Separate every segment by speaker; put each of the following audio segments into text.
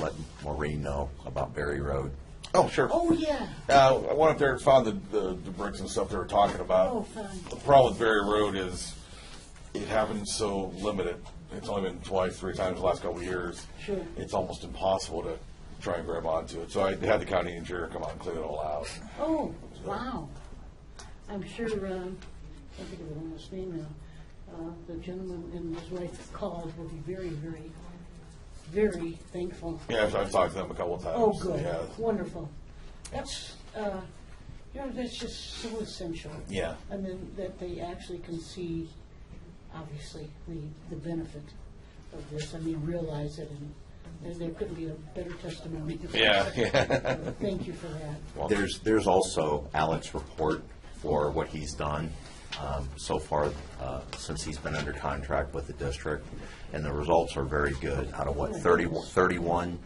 Speaker 1: let Maureen know about Berry Road.
Speaker 2: Oh, sure.
Speaker 3: Oh, yeah.
Speaker 2: Uh, I went up there and found the, the, the bricks and stuff they were talking about.
Speaker 3: Oh, fine.
Speaker 2: The problem with Berry Road is it happened so limited. It's only been twice, three times the last couple of years.
Speaker 3: Sure.
Speaker 2: It's almost impossible to try and grab onto it. So I had the county engineer come out and clean it all out.
Speaker 3: Oh, wow. I'm sure, um, I think of the woman's name now, uh, the gentleman and his wife called will be very, very, very thankful.
Speaker 2: Yeah, so I've talked to them a couple of times.
Speaker 3: Oh, good,
Speaker 2: Yeah.
Speaker 3: wonderful. That's, uh, you know, that's just so essential.
Speaker 2: Yeah.
Speaker 3: I mean, that they actually can see, obviously, the, the benefit of this, I mean, realize it, and there- there couldn't be a better testimony.
Speaker 2: Yeah,
Speaker 3: yeah. Thank you for that.
Speaker 1: There's, there's also Alex's report for what he's done um, so far uh, since he's been under contract with the district, and the results are very good. Out of what, 31 31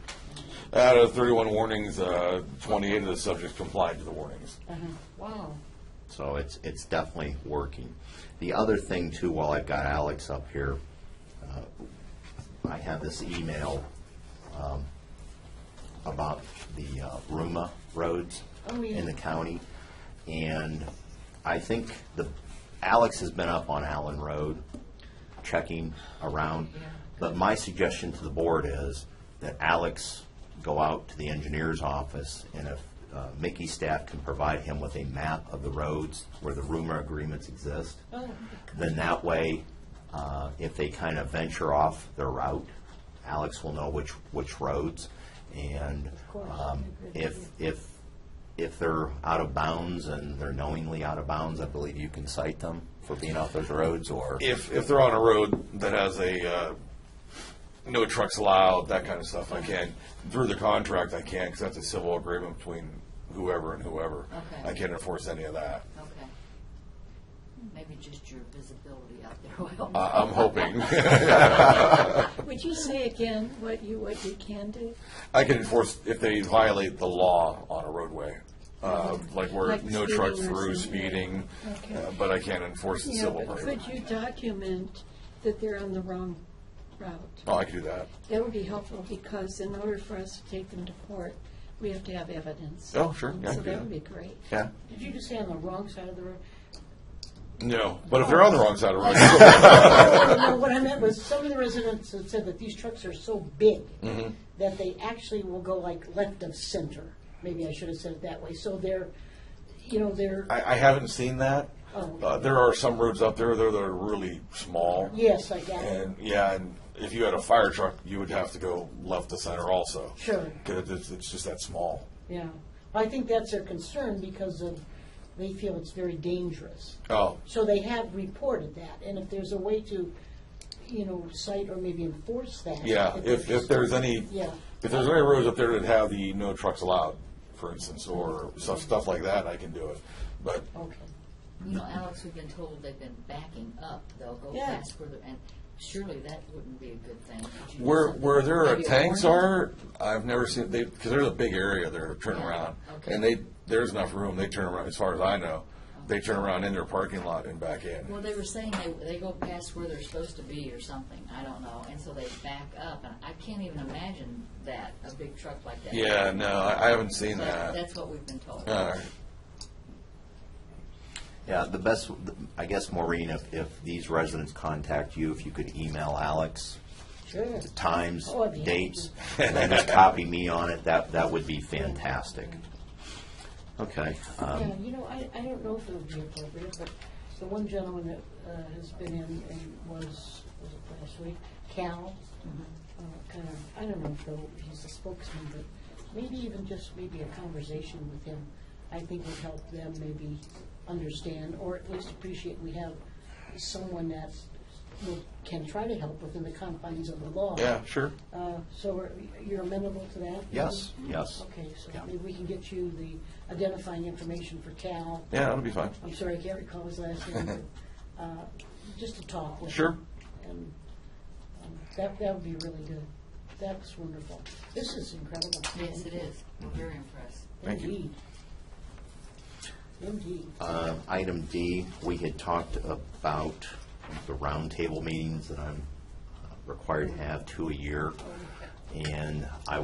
Speaker 2: Out of 31 warnings, uh, 28 of the subjects complied to the warnings.
Speaker 3: Uh-huh. Wow.
Speaker 1: So it's, it's definitely working. The other thing too, while I've got Alex up here, uh, I have this email um, about the uh, Ruma roads
Speaker 3: Oh, yeah.
Speaker 1: in the county. And I think the, Alex has been up on Allen Road checking around. But my suggestion to the board is that Alex go out to the engineer's office, and if uh, Mickey's staff can provide him with a map of the roads where the rumor agreements exist,
Speaker 3: Oh,
Speaker 1: then that way, uh, if they kind of venture off their route, Alex will know which, which roads. And
Speaker 3: course.
Speaker 1: um, if, if, if they're out of bounds and they're knowingly out of bounds, I believe you can cite them for being off those roads, or?
Speaker 2: If, if they're on a road that has a, uh, no trucks allowed, that kind of stuff, I can. Through the contract, I can, because that's a civil agreement between whoever and whoever.
Speaker 4: Okay.
Speaker 2: I can't enforce any of that.
Speaker 4: Okay. Maybe just your visibility out there will.
Speaker 2: I- I'm hoping
Speaker 5: Would you say again what you, what you can do?
Speaker 2: I can enforce if they violate the law on a roadway, uh, like where
Speaker 5: Like
Speaker 2: no
Speaker 5: speeding
Speaker 2: trucks
Speaker 5: or
Speaker 2: through,
Speaker 5: something.
Speaker 2: speeding,
Speaker 5: Okay.
Speaker 2: uh, but I can't enforce the
Speaker 5: Yeah,
Speaker 2: civil
Speaker 5: but could
Speaker 2: agreement.
Speaker 5: you document that they're on the wrong route?
Speaker 2: Oh, I can do that.
Speaker 5: That would be helpful, because in order for us to take them to court, we have to have evidence.
Speaker 2: Oh, sure, yeah, I
Speaker 5: So
Speaker 2: can do
Speaker 5: that
Speaker 2: that.
Speaker 5: would be great.
Speaker 2: Yeah.
Speaker 3: Did you just say on the wrong side of the road?
Speaker 2: No, but if they're on the wrong side of
Speaker 5: Oh.
Speaker 2: the road,
Speaker 3: No, what I meant was, some of the residents had said that these trucks are so big
Speaker 2: Mm-hmm.
Speaker 3: that they actually will go like left of center. Maybe I should have said it that way. So they're, you know, they're,
Speaker 2: I, I haven't seen that.
Speaker 3: Oh.
Speaker 2: Uh, there are some roads out there that are- that are really small.
Speaker 3: yes, I got it.
Speaker 2: And, yeah, and if you had a fire truck, you would have to go left to center also.
Speaker 3: Sure.
Speaker 2: Because it's, it's just that small.
Speaker 3: Yeah. I think that's their concern because of, they feel it's very dangerous.
Speaker 2: Oh,
Speaker 3: So they have reported that. And if there's a way to, you know, cite or maybe enforce that.
Speaker 2: yeah, if, if there's any,
Speaker 3: Yeah.
Speaker 2: if there's any roads up there that have the no trucks allowed, for instance, or stuff, stuff like that, I can do it. But
Speaker 3: Okay.
Speaker 4: You know, Alex, we've been told they've been backing up, they'll go
Speaker 3: Yeah.
Speaker 4: fast further, and surely that wouldn't be a good thing. Could you do
Speaker 2: Where,
Speaker 4: something?
Speaker 2: where there are
Speaker 4: Maybe a
Speaker 2: tanks
Speaker 4: warning?
Speaker 2: are, I've never seen, they, because there's a big area there to turn
Speaker 4: Yeah,
Speaker 2: around.
Speaker 4: okay.
Speaker 2: And they, there's enough room, they turn around, as far as I know, they turn around in their parking lot and back in.
Speaker 4: Well, they were saying they, they go past where they're supposed to be or something, I don't know, and so they back up, and I can't even imagine that, a big truck like that.
Speaker 2: Yeah, no, I, I haven't seen
Speaker 4: But
Speaker 2: that.
Speaker 4: That's what we've been told.
Speaker 2: Uh,
Speaker 1: Yeah, the best, I guess, Maureen, if, if these residents contact you, if you could email Alex,
Speaker 3: Sure.
Speaker 1: times,
Speaker 3: Oh, I'd be
Speaker 1: dates, and then just copy me on it, that, that would be fantastic. Okay,
Speaker 3: Yeah,
Speaker 1: um,
Speaker 3: you know, I, I don't know if it would be appropriate, but the one gentleman that uh, has been in and was, was it last week, Cal, uh, kind of, I don't know if though he's a spokesman, but maybe even just maybe a conversation with him, I think would help them maybe understand, or at least appreciate we have someone that will- can try to help within the confines of the law.
Speaker 2: yeah, sure.
Speaker 3: Uh, So are- you're amenable to that?
Speaker 1: yes, yes.
Speaker 3: Okay, so
Speaker 1: Yeah.
Speaker 3: maybe we can get you the identifying information for Cal.
Speaker 2: Yeah, that'll be fine.
Speaker 3: I'm sorry, I can't recall his last name. but, uh, Just to talk with
Speaker 2: Sure.
Speaker 3: him. And um, that, that would be really good. That's wonderful. This is incredible.
Speaker 4: Yes, it is, we're very impressed.
Speaker 2: Thank you.
Speaker 3: Indeed. Indeed.
Speaker 1: Uh, Item D, we had talked about the roundtable meetings that I'm uh, required to have two a year, and I